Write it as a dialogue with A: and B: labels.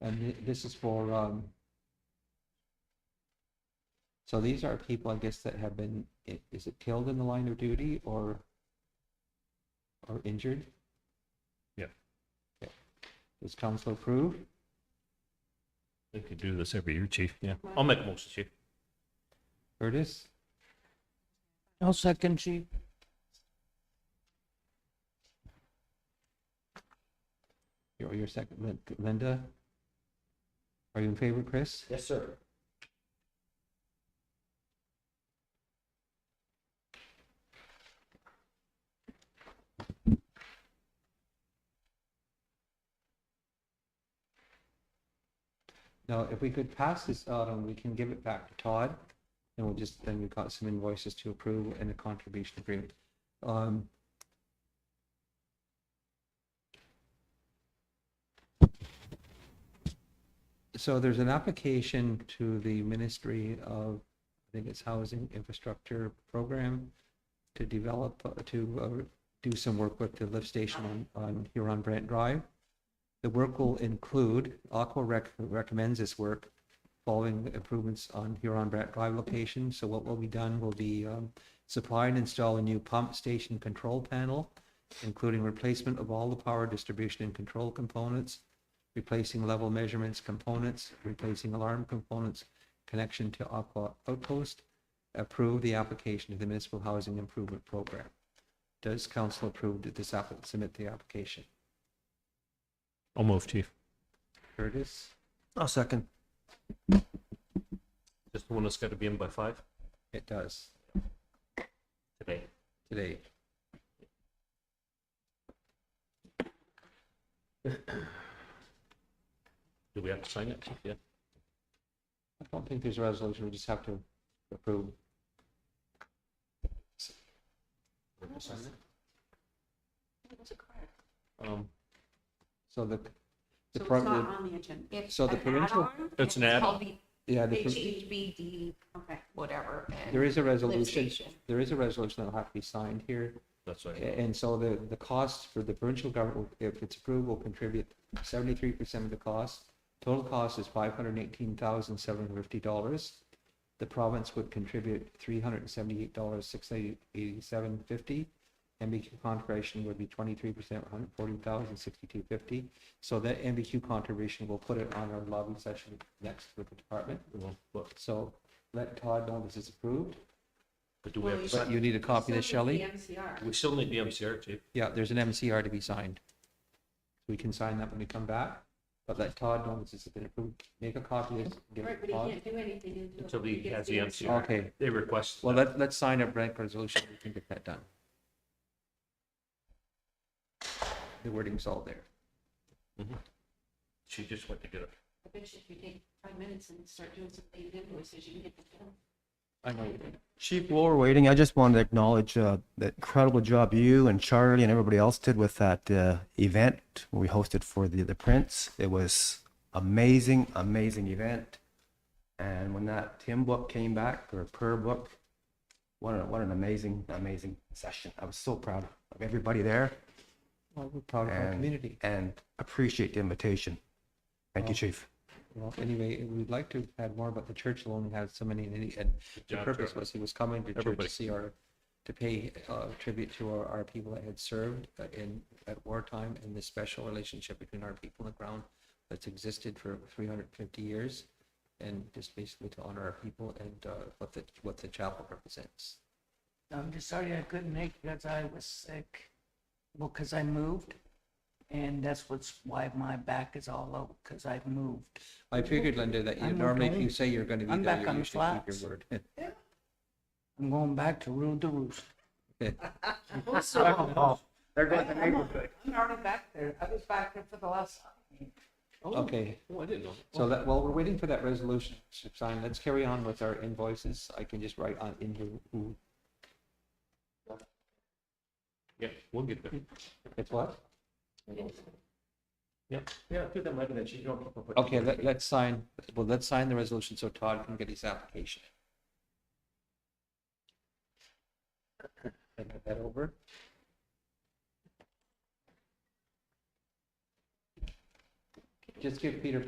A: And thi- this is for, um, so these are people, I guess, that have been, i- is it killed in the line of duty or, or injured?
B: Yeah.
A: Okay. Does council approve?
B: We could do this every year, chief, yeah. I'll make a motion, chief.
A: Curtis?
C: I'll second chief.
A: Your, your second, Lin- Linda? Are you in favor, Chris?
D: Yes, sir.
A: Now, if we could pass this out and we can give it back to Todd, and we'll just, then we've got some invoices to approve and a contribution agreement. Um, So there's an application to the Ministry of, I think it's Housing Infrastructure Program to develop, uh, to uh, do some work with the lift station on, on Huron Brent Drive. The work will include, Aqua rec- recommends this work following improvements on Huron Brant Drive location. So what will be done will be um, supply and install a new pump station control panel, including replacement of all the power distribution and control components, replacing level measurements components, replacing alarm components, connection to Aqua Outpost. Approve the application to the Municipal Housing Improvement Program. Does council approve that this app, submit the application?
B: I'll move, chief.
A: Curtis?
C: I'll second.
B: Just the one that's got to be in by five
A: It does
B: today.
A: today.
B: Do we have to sign it, chief? Yeah.
A: I don't think there's a resolution, we just have to approve.
B: Um,
A: So the, the,
E: So it's
A: pro-
E: not
A: the-
E: on the agenda.
A: So the provincial-
B: It's an
E: called the
A: yeah, the pro-
E: HHBD, okay, whatever. and
A: there is a resolution,
E: station.
A: there is a resolution that'll have to be signed here.
B: that's
A: A-
B: right.
A: And so the, the cost for the provincial government, will- if it's approved, will contribute seventy-three percent of the cost. Total cost is five hundred and eighteen thousand, seven hundred and fifty dollars. The province would contribute three hundred and seventy-eight dollars, six eighty-seven fifty. MBQ contribution would be twenty-three percent, one hundred and forty thousand, sixty-two fifty. So that MBQ contribution, we'll put it on our lobby session next with the department.
B: Well, But
A: So let Todd know this is approved,
B: but do we have to
A: but
B: sign?
A: you need a copy of this,
E: So
A: Shelley?
E: does the MCR.
B: We still need the MCR, chief.
A: Yeah, there's an MCR to be signed. We can sign that when we come back, but let Todd know this has been approved. Make a copy of this. give
E: Right,
A: it
E: but
A: to
E: he
A: Todd.
E: can't do anything until.
B: Until he
E: gets
B: has the MCR.
A: Okay,
B: They request.
A: well, let, let's sign a blank resolution. We can get that done. The wording's all there.
B: She just went to get it.
E: I bet you if you take five minutes and start doing some paid invoices, you can get the bill.
A: I know.
C: Chief, while we're waiting, I just wanted to acknowledge uh, the incredible job you and Charlie and everybody else did with that uh, event we hosted for the the Prince. It was amazing, amazing event. And when that Tim book came back or prayer book, what an what an amazing, amazing session. I was so proud of everybody there
A: Well, we're proud of our
C: And-
A: community.
C: and appreciate the invitation. Thank you,
A: Well,
C: Chief.
A: Well, anyway, we'd like to have had more, but the church only has so many, and he- and the
B: job,
A: purpose
B: Charlie.
A: was he was coming to church
B: Everybody.
A: to see our, to pay uh, tribute to our, our people that had served uh, in, at wartime, and this special relationship between our people on the ground that's existed for three hundred and fifty years, and just basically to honor our people and uh, what the, what the chapel represents.
F: I'm just sorry I couldn't make it because I was sick. Well, because I moved, and that's what's why my back is all out because I've moved.
A: I figured, Linda, that you
F: I'm
A: normally, if
F: okay.
A: you say you're gonna be
F: I'm
A: there,
F: back
A: you
F: on the
A: usually keep your
F: flats.
A: word.
F: I'm going back to rule the roost.
C: There
F: I'm I'm already back there. I was back there for the last.
A: Okay.
B: Oh, I didn't know.
A: So that, while we're waiting for that resolution to sign, let's carry on with our invoices. I can just write on in who- who,
B: Yeah, we'll get there.
A: it's what?
B: Yeah, yeah, do that, Mike, and then she don't.
A: Okay, let, let's sign, well, let's sign the resolution so Todd can get his application. Hand that over. Just give Peter